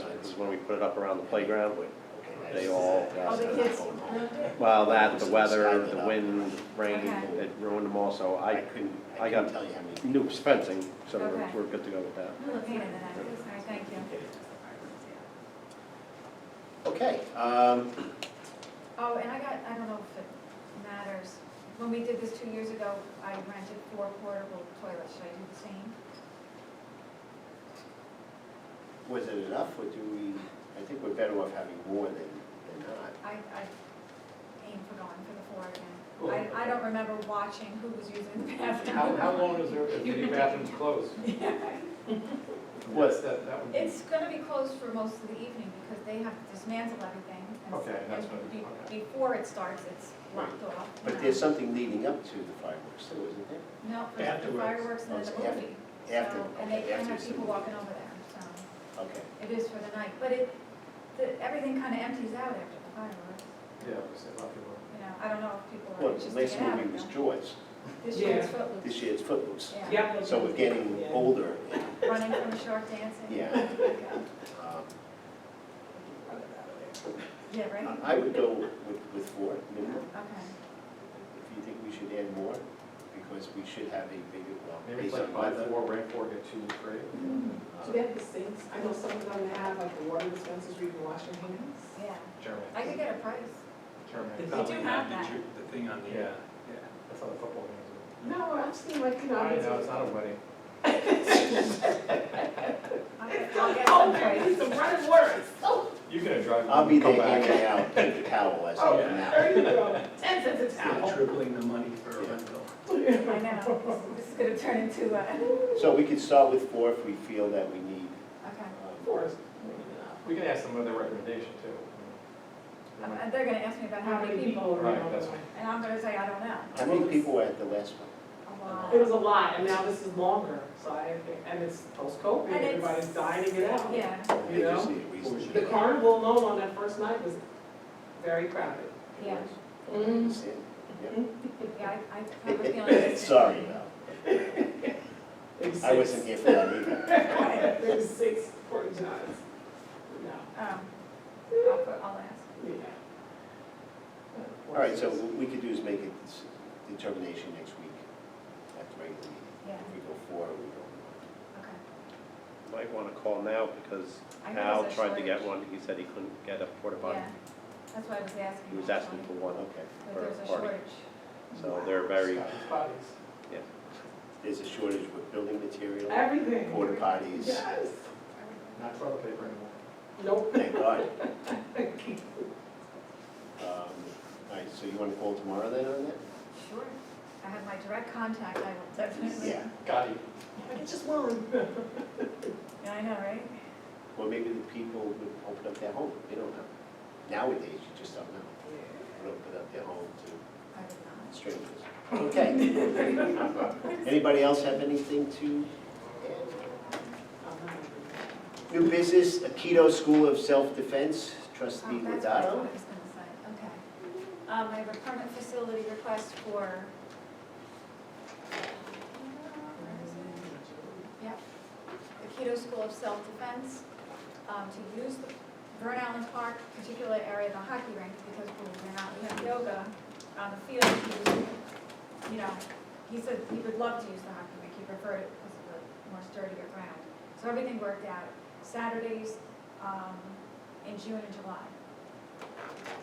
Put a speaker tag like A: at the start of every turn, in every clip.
A: is when we put it up around the playground. They all,
B: Oh, the kids moved it?
A: well, that, the weather, the wind, rain,
B: Okay.
A: it ruined them all, so I couldn't, I got
C: tell you how many.
A: new fencing, so we're,
B: Okay.
A: we're good to go with that.
B: We'll look into that. All right, thank you.
C: Okay, um,
B: Oh, and I got, I don't know if it matters. When we did this two years ago, I rented four portable toilets. Should I do the same?
C: was it enough, or do we, I think we're better off having more than, than not.
B: I, I aim for going for the four again. I, I don't remember watching who was using the bathroom.
D: How, how long is there, if the bathroom's closed?
C: What?
D: That, that would be,
B: It's gonna be closed for most of the evening because they have to dismantle everything. and-
D: Okay, that's
B: and
D: what-
B: be-
D: okay.
B: Before it starts, it's locked off.
C: But there's something leading up to the fireworks, too, isn't there?
B: No, for the
D: Afterwards.
B: fireworks and then
C: Oh,
B: the
C: it's after-
B: movie.
C: After,
B: So, And they
C: okay,
B: can
C: after.
B: have
C: it's-
B: people walking over there, so
C: Okay,
B: it is for the night. But it, the, everything kind of empties out after the fireworks.
D: yeah, we said, a lot of people.
B: You know, I don't know if people
C: well,
B: are
C: the
B: just
C: last
B: get out.
C: movie was
B: you know.
C: George,
B: This year it's
E: Yeah.
B: Footloose.
C: this year it's Footloose.
B: Yeah,
E: Yep.
C: So we're getting
E: Yeah.
C: older, and,
B: running from the shark dancing.
C: Yeah.
B: Okay.
C: um,
B: Yeah, right?
C: I would go with, with four, minimum.
B: Okay.
C: If you think we should add more, because we should have a bigger, well,
D: Maybe it's
C: based on
D: like buy
C: weather. Uh,
D: four, rent four, get two free.
E: Do they have the sinks? I know some of them have like the water dispensers where you can wash your hands.
B: Yeah,
D: Germany,
B: I could get a price.
D: Germany.
F: They
B: do
F: probably have
B: have
F: the ju- the thing on the,
D: Yeah,
F: uh, yeah.
D: that's how the football games
E: No, I've seen like, you know.
D: are. I know, it's not a wedding.
B: I- I'll get
E: Oh,
B: some
E: man,
B: price.
E: it's the running words. Oh,
D: You're gonna
F: uh,
D: drive.
C: I'll be
D: come
C: there
D: back.
C: hanging out, take the towel as
E: oh,
C: I come out.
E: there you go. Ten cents a
F: They're
E: towel.
F: Tripling the money for a
C: Yeah.
F: rental.
B: I know, this is gonna turn into uh, a, okay.
C: So we could start with four if we feel that we need.
E: Of
C: um,
E: course.
D: We can ask them what their recommendation too.
B: Um, and They're gonna ask me about how many people,
E: were
D: Right, that's-
B: and I'm gonna say, I don't know.
C: How many people were at the last one?
B: A lot.
E: It was a lot, and now this is longer, so I, and it's post-COVID,
B: And it's-
E: everybody's dying to get out.
B: Yeah,
C: They just
E: know,
C: need a reason. to
E: The
C: get out.
E: carnival alone on that first night was very crowded.
B: yeah,
E: Mm.
C: Sin,
B: yeah, I, I have a feeling.
C: yeah.
B: it's-
C: Sorry, Val.
E: There was
C: I wasn't
E: six-
C: here for that either.
B: Okay,
E: There was six porta johns. No.
B: um, I'll, put- I'll ask.
C: All right, so what we could do is make a s- determination next week at the regular meeting.
B: Yeah,
C: If we go four, we go.
B: okay.
A: Might wanna call now because
B: I know
A: Al
B: there's a
A: tried to get
B: shortage.
A: one, he said he couldn't get a porta potty.
B: Yeah, that's what I was asking.
A: He was asking for one,
C: Okay.
B: If there's a
A: for a party.
B: shortage.
A: so they're very,
E: Bodies.
C: There's a shortage with building material,
E: Everything.
C: porta potties,
E: Yes.
D: Not toilet paper anymore.
E: Nope.
C: thank God. Um, All right, so you want to call tomorrow then on that?
B: Sure, I have my direct contact, I will definitely.
C: Yeah,
D: Got it.
E: I could just one.
B: Yeah, I know, right?
C: well, maybe the people would open up their home, they don't know. Nowadays, you just don't know, would open up their home to
B: I did not.
C: strangers. Okay. Anybody else have anything to add? New business, Aikido School of Self-Defense, trustee
B: Oh, that's what I
C: Ladato.
B: thought I was gonna say, okay. Um, I have a permanent facility request for. Yep, the Keto School of Self-Defense, um, to use the Vern Allen Park, particular area of the hockey rink, because we're not, we have yoga on the field, he was, you know, he said he would love to use the hockey rink, he preferred it because of the more sturdier ground. So everything worked out, Saturdays, um, in June and July.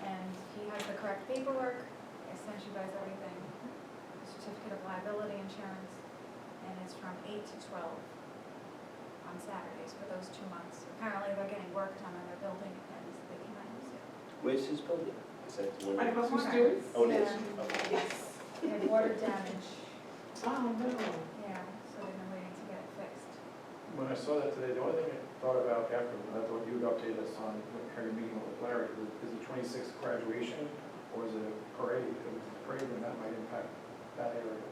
B: And he has the correct paperwork, I sent you guys everything, the certificate of liability insurance, and it's from eight to twelve on Saturdays for those two months. Apparently, they're getting work done on their building, and they cannot use it.
C: Where's his building? Is that the
E: My
C: one?
E: husband students?
C: Oh, it is,
B: Yeah.
C: okay.
E: Yes.
B: They have water damage,
E: Oh, no.
B: yeah, so they've been waiting to get it fixed.
D: When I saw that today, the only thing I thought about after, I thought you would update us on how your meeting with Larry, is it twenty-sixth graduation or is it a parade? If it was a parade, then that might impact that area.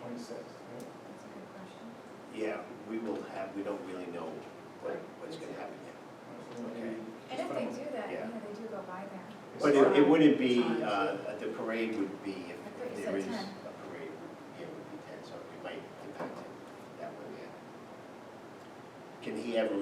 D: Twenty-sixth, yeah.
B: That's a good question.
C: Yeah, we will have, we don't really know what, what's gonna happen yet. Okay.
B: And if they do that,
C: Yeah.
B: yeah, they do go by there.
C: But it, it wouldn't be, uh, the parade would be if-
B: I thought
C: if
B: you
C: there
B: said
C: is.
B: ten.